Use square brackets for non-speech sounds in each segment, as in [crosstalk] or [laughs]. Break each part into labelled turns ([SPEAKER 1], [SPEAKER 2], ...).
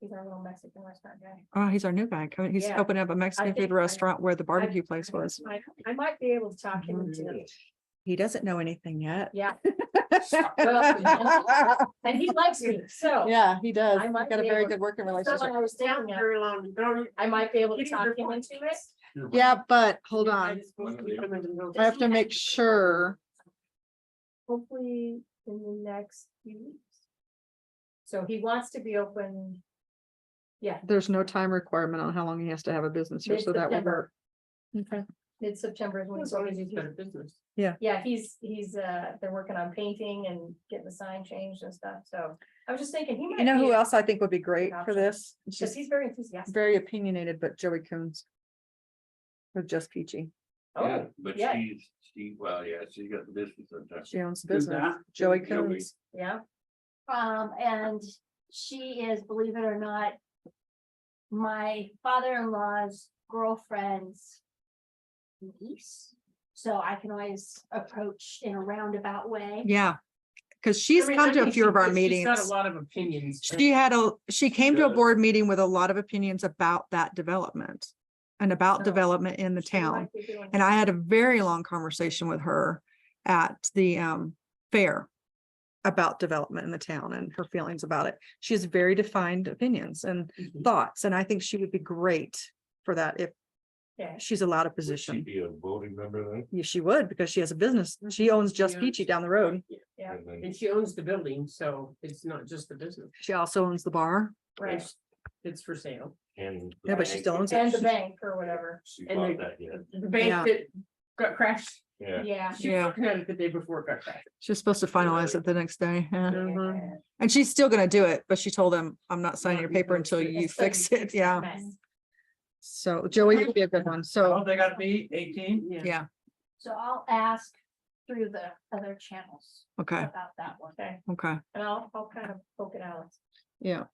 [SPEAKER 1] He's our little Mexican restaurant guy.
[SPEAKER 2] Oh, he's our new guy. Come- He's
[SPEAKER 1] Yeah.
[SPEAKER 2] opening up a Mexican
[SPEAKER 1] think
[SPEAKER 2] food
[SPEAKER 1] I-
[SPEAKER 2] restaurant where the barbecue place
[SPEAKER 1] I might-
[SPEAKER 2] was.
[SPEAKER 1] I might be able to talk him into,
[SPEAKER 3] Mhm.
[SPEAKER 2] He doesn't know anything yet.
[SPEAKER 1] yeah,
[SPEAKER 2] Yeah, [laughs]
[SPEAKER 1] and he likes me, so.
[SPEAKER 2] he does.
[SPEAKER 1] I
[SPEAKER 2] He's
[SPEAKER 1] might
[SPEAKER 2] Got a
[SPEAKER 1] be
[SPEAKER 2] very
[SPEAKER 1] able-
[SPEAKER 2] good working
[SPEAKER 1] So
[SPEAKER 2] relationship.
[SPEAKER 1] when I was down there,
[SPEAKER 3] Very long, don't-
[SPEAKER 1] I might be able to
[SPEAKER 3] Getting
[SPEAKER 1] talk
[SPEAKER 3] your
[SPEAKER 1] him
[SPEAKER 3] points.
[SPEAKER 1] into it.
[SPEAKER 2] Yeah, but hold
[SPEAKER 3] I
[SPEAKER 2] on.
[SPEAKER 3] just want to keep them in the middle.
[SPEAKER 2] I have to make sure.
[SPEAKER 1] Hopefully in the next few weeks. So he wants to be open. Yeah,
[SPEAKER 2] There's no time requirement on how long he has to have a business here, so that would work.
[SPEAKER 1] Mid-September. mid-September is when
[SPEAKER 3] As
[SPEAKER 1] he's
[SPEAKER 3] long as
[SPEAKER 1] already
[SPEAKER 3] it's better business.
[SPEAKER 1] Yeah, he's, he's, uh, they're working on painting and getting the sign changed and stuff, so I was just thinking, he might.
[SPEAKER 2] You know
[SPEAKER 1] be-
[SPEAKER 2] who else I think would be great for
[SPEAKER 1] Option.
[SPEAKER 2] this?
[SPEAKER 1] Cause
[SPEAKER 2] Just
[SPEAKER 1] he's very enthusiastic.
[SPEAKER 2] very opinionated, but Joey Coons. With Just Peachy.
[SPEAKER 1] Oh,
[SPEAKER 4] But
[SPEAKER 1] yeah.
[SPEAKER 4] she's, she, well, yeah, she's got the business sometimes.
[SPEAKER 2] She owns the
[SPEAKER 4] Who's
[SPEAKER 2] business.
[SPEAKER 4] that?
[SPEAKER 2] Joey
[SPEAKER 4] Joey.
[SPEAKER 2] Coons.
[SPEAKER 1] yeah,
[SPEAKER 5] Um, and she is, believe it or not, my father-in-law's girlfriend's niece. So I can always approach in a roundabout way.
[SPEAKER 2] Yeah. Cause she's
[SPEAKER 3] I mean,
[SPEAKER 2] come
[SPEAKER 3] I
[SPEAKER 2] to a
[SPEAKER 3] think
[SPEAKER 2] few
[SPEAKER 3] she-
[SPEAKER 2] of our
[SPEAKER 3] she's Got a
[SPEAKER 2] meetings.
[SPEAKER 3] lot of opinions.
[SPEAKER 2] She had a, she came to a
[SPEAKER 4] Good.
[SPEAKER 2] board meeting with a lot of opinions about that development. And about
[SPEAKER 1] So,
[SPEAKER 4] Oh,
[SPEAKER 2] development in the
[SPEAKER 1] he might
[SPEAKER 2] town.
[SPEAKER 1] be doing-
[SPEAKER 2] And I had a very long conversation with her at the um fair. About development in the town and her feelings about it. She has very defined opinions and
[SPEAKER 3] Mhm.
[SPEAKER 2] thoughts, and I think she would be great for that if
[SPEAKER 1] Yeah.
[SPEAKER 2] she's allowed a
[SPEAKER 4] Would she
[SPEAKER 2] position.
[SPEAKER 4] Be a voting member then?
[SPEAKER 2] Yeah, she would because she has a business. She owns Just
[SPEAKER 3] Yeah.
[SPEAKER 2] Peachy down the road.
[SPEAKER 1] Yeah.
[SPEAKER 4] And then-
[SPEAKER 3] And she owns the building, so it's not just the business.
[SPEAKER 2] She also owns the bar.
[SPEAKER 1] Right,
[SPEAKER 3] It's- It's for sale.
[SPEAKER 4] And.
[SPEAKER 2] [laughs] Yeah, but she still owns
[SPEAKER 1] and the
[SPEAKER 2] it.
[SPEAKER 1] bank or whatever,
[SPEAKER 4] She
[SPEAKER 3] And
[SPEAKER 4] bought
[SPEAKER 3] the-
[SPEAKER 4] that, yeah,
[SPEAKER 3] The
[SPEAKER 2] Yeah.
[SPEAKER 3] bank that got crashed.
[SPEAKER 4] yeah.
[SPEAKER 1] yeah.
[SPEAKER 3] She was
[SPEAKER 2] Yeah.
[SPEAKER 3] working on it the day before it got crashed.
[SPEAKER 2] She's supposed to finalize it the next day. yeah.
[SPEAKER 1] Yeah.
[SPEAKER 2] And she's still gonna do it, but she told him, I'm not signing
[SPEAKER 3] Not
[SPEAKER 2] your paper
[SPEAKER 3] until
[SPEAKER 2] until
[SPEAKER 3] you
[SPEAKER 2] you
[SPEAKER 1] It's so
[SPEAKER 2] fix it. Yeah.
[SPEAKER 1] mess.
[SPEAKER 2] So Joey would be a good one. So,
[SPEAKER 4] they got me eighteen?
[SPEAKER 3] Oh, Yeah.
[SPEAKER 2] yeah,
[SPEAKER 5] So I'll ask through the other channels
[SPEAKER 2] okay,
[SPEAKER 5] about that one.
[SPEAKER 1] Okay,
[SPEAKER 2] okay,
[SPEAKER 1] and I'll, I'll kind of poke it out.
[SPEAKER 2] yeah.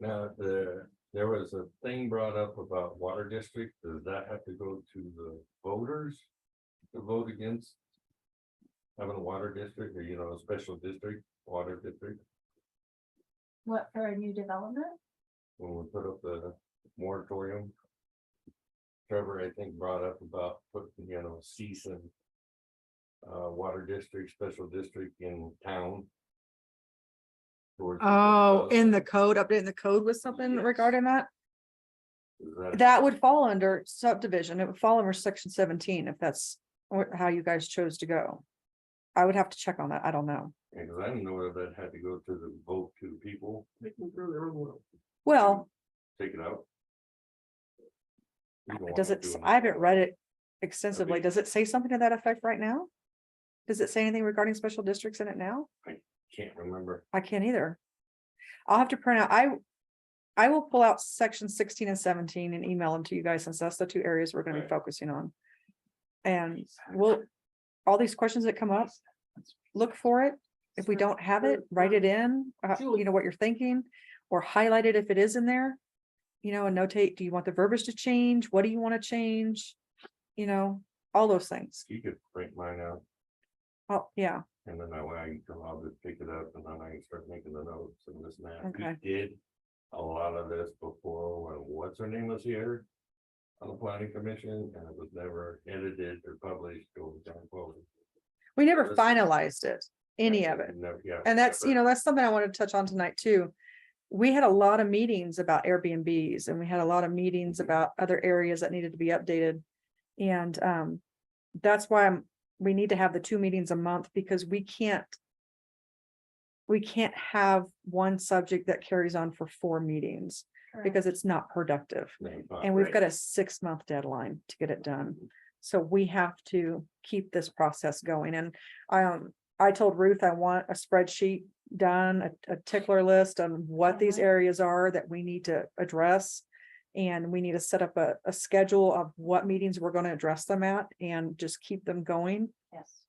[SPEAKER 4] Now, the, there was a thing brought up about water district, does that have to go to the voters? To vote against? Having a water district or, you know, a special district, water district,
[SPEAKER 5] What for a new development?
[SPEAKER 4] when we put up the moratorium. Trevor, I think, brought up about putting, you know, cease and. Uh, water district, special district in town. Towards the-
[SPEAKER 2] Oh, in the code, updating the code with something
[SPEAKER 4] Yes.
[SPEAKER 2] regarding that?
[SPEAKER 4] Is that-
[SPEAKER 2] That would fall under subdivision. It would fall under section seventeen if that's wh- how you guys chose to go. I would have to check on that. I don't know.
[SPEAKER 4] Yeah, 'cause I didn't know whether that had to go to the vote to the people,
[SPEAKER 3] They can grow their own world.
[SPEAKER 2] Well,
[SPEAKER 4] take it out. You don't want
[SPEAKER 2] does
[SPEAKER 4] to
[SPEAKER 2] it, s-
[SPEAKER 4] do
[SPEAKER 2] I haven't
[SPEAKER 4] anything.
[SPEAKER 2] read it extensively.
[SPEAKER 4] Okay.
[SPEAKER 2] Does it say something to that effect right now? Does it say anything regarding special districts in it now?
[SPEAKER 4] Can't remember.
[SPEAKER 2] I can't either. I'll have to print out, I. I will pull out section sixteen and seventeen and email them to you guys since that's the two areas we're gonna be
[SPEAKER 4] Right.
[SPEAKER 2] focusing on. And we'll, all these questions that come up, look for it. If we don't have it, write it in, uh, you
[SPEAKER 3] Julie.
[SPEAKER 2] know, what you're thinking, or highlight it if it is in there. You know, and notate, do you want the verbiage to change? What do you want to change? You know, all those things.
[SPEAKER 4] You could print mine out
[SPEAKER 2] Oh, yeah,
[SPEAKER 4] and then that way I can come out and pick it up and then I can start making the notes and this and that. We
[SPEAKER 2] Okay.
[SPEAKER 4] Did a lot of this before when what's her name was here. On the planning commission and it was never edited or published or done. forward.
[SPEAKER 2] we never
[SPEAKER 4] Let's-
[SPEAKER 2] finalized it, any of it.
[SPEAKER 4] Never- yeah,
[SPEAKER 2] And that's, you
[SPEAKER 4] never.
[SPEAKER 2] know, that's something I wanted to touch on tonight too. We had a lot of meetings about Airbnbs and we had a lot of meetings about other areas that needed to be updated. And um, that's why I'm, we need to have the two meetings a month because we can't. We can't have one subject that carries on for four meetings because it's not productive.
[SPEAKER 4] Name, uh,
[SPEAKER 2] And we've
[SPEAKER 4] right.
[SPEAKER 2] got a six month deadline to get it done. So we have to keep this process going and I, um, I told Ruth I want a spreadsheet done, a, a tickler list on what these
[SPEAKER 5] Mhm.
[SPEAKER 2] areas are that we need to address. And we need to set up a, a schedule of what meetings we're gonna address them at and just keep them going.
[SPEAKER 5] Yes.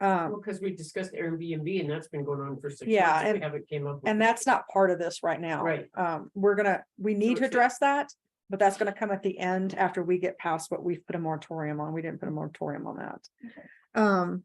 [SPEAKER 2] Um,
[SPEAKER 3] Well, because we discussed Airbnb and that's been going on for six. months,
[SPEAKER 2] Yeah,
[SPEAKER 3] and We
[SPEAKER 2] and-
[SPEAKER 3] haven't came up. with
[SPEAKER 2] and
[SPEAKER 3] it.
[SPEAKER 2] that's not part of this right now.
[SPEAKER 3] Right.
[SPEAKER 2] Um, we're gonna, we need to
[SPEAKER 3] it's-
[SPEAKER 2] address that, but that's gonna come at the end after we get past what we've put a moratorium on. We didn't put a moratorium on that. Um,